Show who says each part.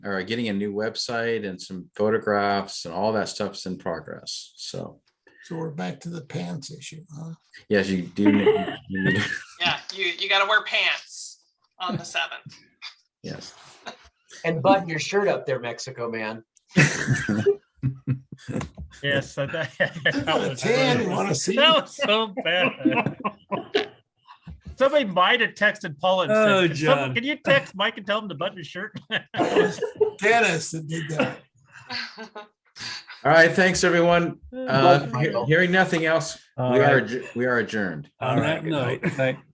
Speaker 1: or getting a new website and some photographs and all that stuff's in progress. So
Speaker 2: So we're back to the pants issue, huh?
Speaker 1: yes, you do. need- you need-
Speaker 3: Yeah, you, you gotta wear pants on the seventh.
Speaker 1: Yes.
Speaker 4: And button your shirt up there, Mexico man.
Speaker 5: Yes, I- that,
Speaker 2: I've
Speaker 5: that
Speaker 2: got a
Speaker 5: was
Speaker 2: tan, you
Speaker 5: really-
Speaker 2: want to see?
Speaker 5: that was so bad. Somebody might have texted Paul and
Speaker 6: Oh,
Speaker 5: said, "Can some-
Speaker 6: John.
Speaker 5: "Can you text Mike and tell him to button his shirt?"
Speaker 2: That was Dennis that did that.
Speaker 1: All right. Thanks, everyone. Uh,
Speaker 6: Michael.
Speaker 1: he- hearing nothing else,
Speaker 6: All
Speaker 1: we are
Speaker 6: right.
Speaker 1: adj- we are adjourned.
Speaker 6: On that note, thank-